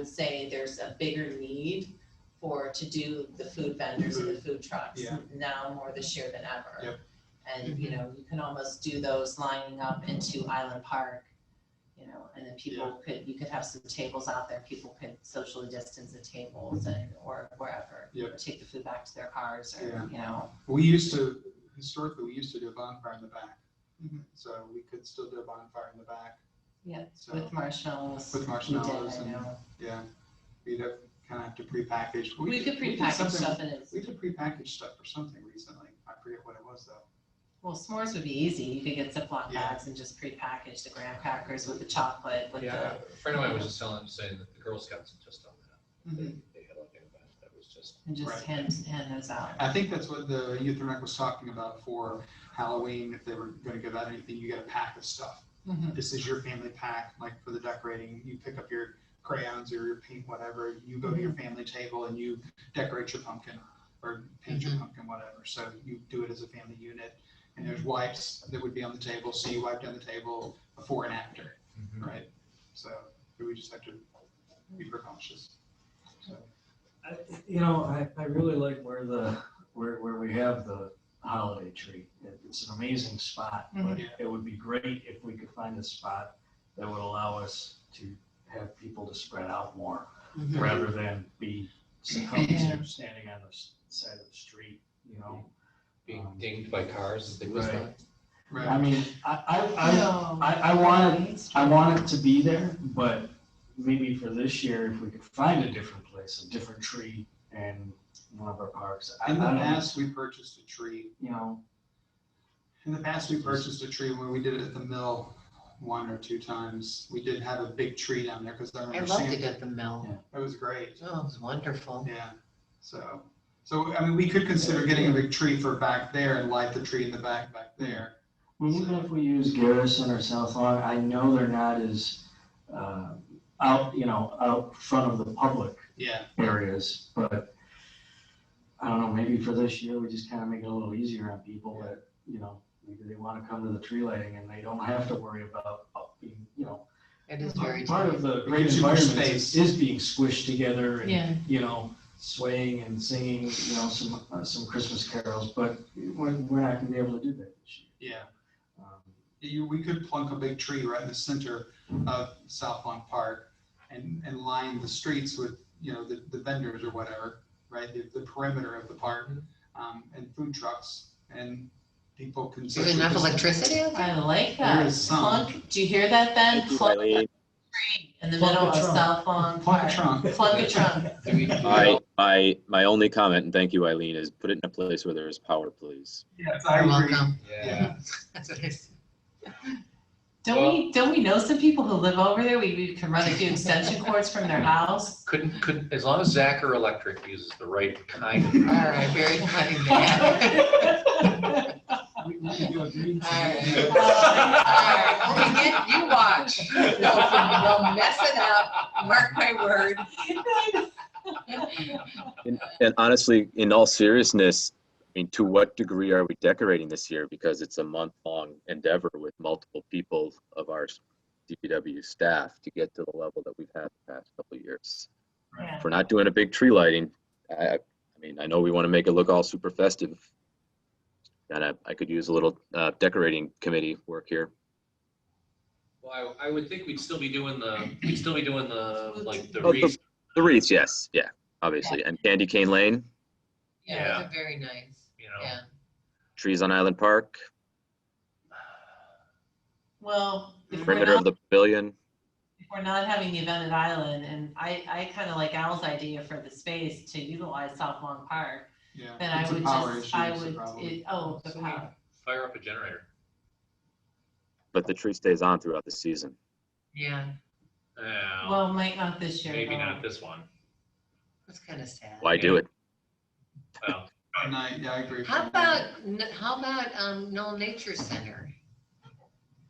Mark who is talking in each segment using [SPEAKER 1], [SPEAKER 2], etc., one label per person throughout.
[SPEAKER 1] would say there's a bigger need for, to do the food vendors and the food trucks.
[SPEAKER 2] Mm-hmm. Yeah.
[SPEAKER 1] Now more this year than ever.
[SPEAKER 2] Yep.
[SPEAKER 1] And, you know, you can almost do those lining up into Island Park, you know, and then people could, you could have some tables out there, people could socially distance the tables and, or wherever.
[SPEAKER 2] Yep.
[SPEAKER 1] Take the food back to their cars
[SPEAKER 2] Yeah.
[SPEAKER 1] or, you know,
[SPEAKER 2] We used to, historically, we used to do a bonfire in the back.
[SPEAKER 1] Mhm.
[SPEAKER 2] So we could still do a bonfire in the back.
[SPEAKER 1] Yeah,
[SPEAKER 2] So,
[SPEAKER 1] with marshmallows.
[SPEAKER 2] With
[SPEAKER 1] we did,
[SPEAKER 2] marshmallows
[SPEAKER 1] I
[SPEAKER 2] and-
[SPEAKER 1] know.
[SPEAKER 2] yeah, we'd have, kind of have to
[SPEAKER 1] We
[SPEAKER 2] prepackage.
[SPEAKER 1] could
[SPEAKER 2] we did
[SPEAKER 1] prepackage
[SPEAKER 2] something-
[SPEAKER 1] stuff and it's,
[SPEAKER 2] We did prepackaged stuff for something recently. I forget what it was though.
[SPEAKER 1] well, s'mores would be easy. You could get Ziploc
[SPEAKER 2] Yeah.
[SPEAKER 1] bags and just prepackage the graham crackers with the chocolate, with
[SPEAKER 3] Yeah,
[SPEAKER 1] the,
[SPEAKER 3] a friend of mine was just telling, saying that the Girl Scouts had just done that. They
[SPEAKER 1] Mhm.
[SPEAKER 3] they had like an event that was just,
[SPEAKER 1] and just
[SPEAKER 2] Right.
[SPEAKER 1] hand, hand those out.
[SPEAKER 2] I think that's what the youth rec was talking about for Halloween. If they were going to give out anything, you get a pack of stuff.
[SPEAKER 1] Mhm.
[SPEAKER 2] This is your family pack, like for the decorating. You pick up your crayons or your paint, whatever. You go to your family table and you decorate your pumpkin or paint your pumpkin, whatever. So you do it as a family unit. And there's wipes that would be on the table. So you wipe down the table before and after,
[SPEAKER 3] Mm-hmm.
[SPEAKER 2] right? So we just have to be precautious. So,
[SPEAKER 4] I- You know, I, I really like where the, where, where we have the holiday tree. It- It's an amazing spot, but
[SPEAKER 2] Mhm.
[SPEAKER 4] it would be great if we could find a spot that would allow us to have people to spread out more,
[SPEAKER 1] Mm-hmm.
[SPEAKER 2] Mhm.
[SPEAKER 4] rather than be succumbed to standing on the s- side of the street, you know?
[SPEAKER 3] being
[SPEAKER 4] Um,
[SPEAKER 3] dinged by cars as they whizzed
[SPEAKER 4] Right.
[SPEAKER 3] by.
[SPEAKER 2] right.
[SPEAKER 4] I mean, I, I,
[SPEAKER 1] No.
[SPEAKER 4] I, I want it,
[SPEAKER 1] Main
[SPEAKER 4] I
[SPEAKER 1] Street.
[SPEAKER 4] want it to be there, but maybe for this year, if we could find a different place, a different tree and one of our parks. I-
[SPEAKER 2] In the
[SPEAKER 4] I don't-
[SPEAKER 2] past, we purchased a tree.
[SPEAKER 4] You know,
[SPEAKER 2] In the past, we purchased a tree when we did it at the mill one or two times. We did have a big tree down there because I
[SPEAKER 5] I
[SPEAKER 2] remember
[SPEAKER 5] love to
[SPEAKER 2] Sam,
[SPEAKER 5] get the mill.
[SPEAKER 2] it was great.
[SPEAKER 5] Oh, it was wonderful.
[SPEAKER 2] Yeah. So, so I mean, we could consider getting a big tree for back there and light the tree in the back, back there.
[SPEAKER 4] I mean, even if we use Garrison or South Lawn, I know they're not as, uh, out, you know, out front of the public
[SPEAKER 2] Yeah.
[SPEAKER 4] areas, but I don't know, maybe for this year, we just kind of make it a little easier on people that, you know, maybe they want to come to the tree lighting and they don't have to worry about, uh, being, you know,
[SPEAKER 5] It is very.
[SPEAKER 4] Part of the
[SPEAKER 2] It
[SPEAKER 4] great
[SPEAKER 2] gives you more
[SPEAKER 4] environment
[SPEAKER 2] space.
[SPEAKER 4] is is being squished together and,
[SPEAKER 1] Yeah,
[SPEAKER 4] you know, swaying and singing, you know, some, uh, some Christmas carols, but we're, we're not gonna be able to do that this
[SPEAKER 2] Yeah.
[SPEAKER 4] year. Um,
[SPEAKER 2] You, we could plunk a big tree right in the center of South Lawn Park and, and line the streets with, you know, the, the vendors or whatever, right? The, the perimeter of the park, um, and food trucks and people can.
[SPEAKER 5] Is there enough electricity? out there?
[SPEAKER 1] I like
[SPEAKER 2] There
[SPEAKER 1] that.
[SPEAKER 2] is some.
[SPEAKER 1] Plunk, do you hear that, Ben?
[SPEAKER 6] Thank you,
[SPEAKER 1] Plunk
[SPEAKER 6] Eileen.
[SPEAKER 1] tree in the
[SPEAKER 4] Plunk
[SPEAKER 1] middle
[SPEAKER 4] a
[SPEAKER 1] of
[SPEAKER 4] trunk.
[SPEAKER 1] South Lawn
[SPEAKER 2] Plunk a
[SPEAKER 1] Park.
[SPEAKER 2] trunk.
[SPEAKER 1] Plunk a trunk.
[SPEAKER 3] Do we- do we
[SPEAKER 6] My,
[SPEAKER 3] all-
[SPEAKER 6] my, my only comment, and thank you, Eileen, is put it in a place where there is power, please.
[SPEAKER 2] Yes,
[SPEAKER 5] You're welcome.
[SPEAKER 3] Yeah,
[SPEAKER 5] That's what I said.
[SPEAKER 1] Don't we, don't we know some people who live over there? We, we can run a few extension cords from their house.
[SPEAKER 3] couldn't, couldn't, as long as Zachar Electric uses the right kind of.
[SPEAKER 5] All right, very funny, man.
[SPEAKER 4] we- we can do a green
[SPEAKER 5] All right.
[SPEAKER 4] tea.
[SPEAKER 5] All right, I'll begin, you watch. You'll mess it up, mark my word.
[SPEAKER 6] And, and honestly, in all seriousness, I mean, to what degree are we decorating this year? Because it's a month-long endeavor with multiple people of our DPW staff to get to the level that we've had the past couple of years.
[SPEAKER 1] Yeah.
[SPEAKER 6] If we're not doing a big tree lighting, I, I mean, I know we want to make it look all super festive. And I, I could use a little uh, decorating committee work here.
[SPEAKER 3] Well, I, I would think we'd still be doing the, we'd still be doing the, like, the
[SPEAKER 6] Oh, the-
[SPEAKER 3] wreath.
[SPEAKER 6] The wreaths, yes, yeah, obviously. And Candy Cane Lane,
[SPEAKER 5] Yeah,
[SPEAKER 3] Yeah.
[SPEAKER 5] they're very nice,
[SPEAKER 3] you know.
[SPEAKER 5] yeah.
[SPEAKER 6] trees on Island Park,
[SPEAKER 1] Well, if we're
[SPEAKER 6] perimeter
[SPEAKER 1] not
[SPEAKER 6] of the pavilion.
[SPEAKER 1] if we're not having the event at Island, and I, I kind of like Al's idea for the space to utilize South Long Park,
[SPEAKER 2] Yeah.
[SPEAKER 1] then I
[SPEAKER 2] it's a
[SPEAKER 1] would
[SPEAKER 2] power
[SPEAKER 1] just,
[SPEAKER 2] issue,
[SPEAKER 1] I
[SPEAKER 2] it's a
[SPEAKER 1] would,
[SPEAKER 2] problem.
[SPEAKER 1] it, oh, the
[SPEAKER 3] So we
[SPEAKER 1] power.
[SPEAKER 3] Fire up a generator.
[SPEAKER 6] But the tree stays on throughout the season.
[SPEAKER 5] Yeah,
[SPEAKER 3] Well,
[SPEAKER 1] Well, might not this year.
[SPEAKER 3] Oh. maybe
[SPEAKER 1] though.
[SPEAKER 3] not this one.
[SPEAKER 5] that's kind of sad.
[SPEAKER 6] Why do it?
[SPEAKER 3] Well,
[SPEAKER 2] And I, yeah, I agree. with
[SPEAKER 5] How
[SPEAKER 2] you.
[SPEAKER 5] about, n- how about um, Knoll Nature Center?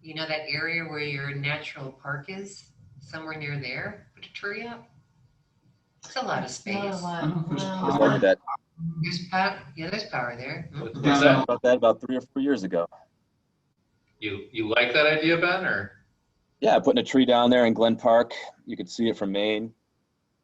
[SPEAKER 5] You know, that area where your natural park is, somewhere near there, put a tree up? It's a lot of
[SPEAKER 1] Not a
[SPEAKER 5] space.
[SPEAKER 2] I don't
[SPEAKER 1] lot,
[SPEAKER 2] know if there's
[SPEAKER 1] no.
[SPEAKER 6] It's
[SPEAKER 2] power.
[SPEAKER 6] like that,
[SPEAKER 5] There's power, yeah, there's power there. Mm.
[SPEAKER 3] what's
[SPEAKER 2] Yeah.
[SPEAKER 3] that?
[SPEAKER 6] about that about three or four years ago.
[SPEAKER 3] You, you like that idea, Ben, or?
[SPEAKER 6] Yeah, putting a tree down there in Glen Park. You could see it from Maine.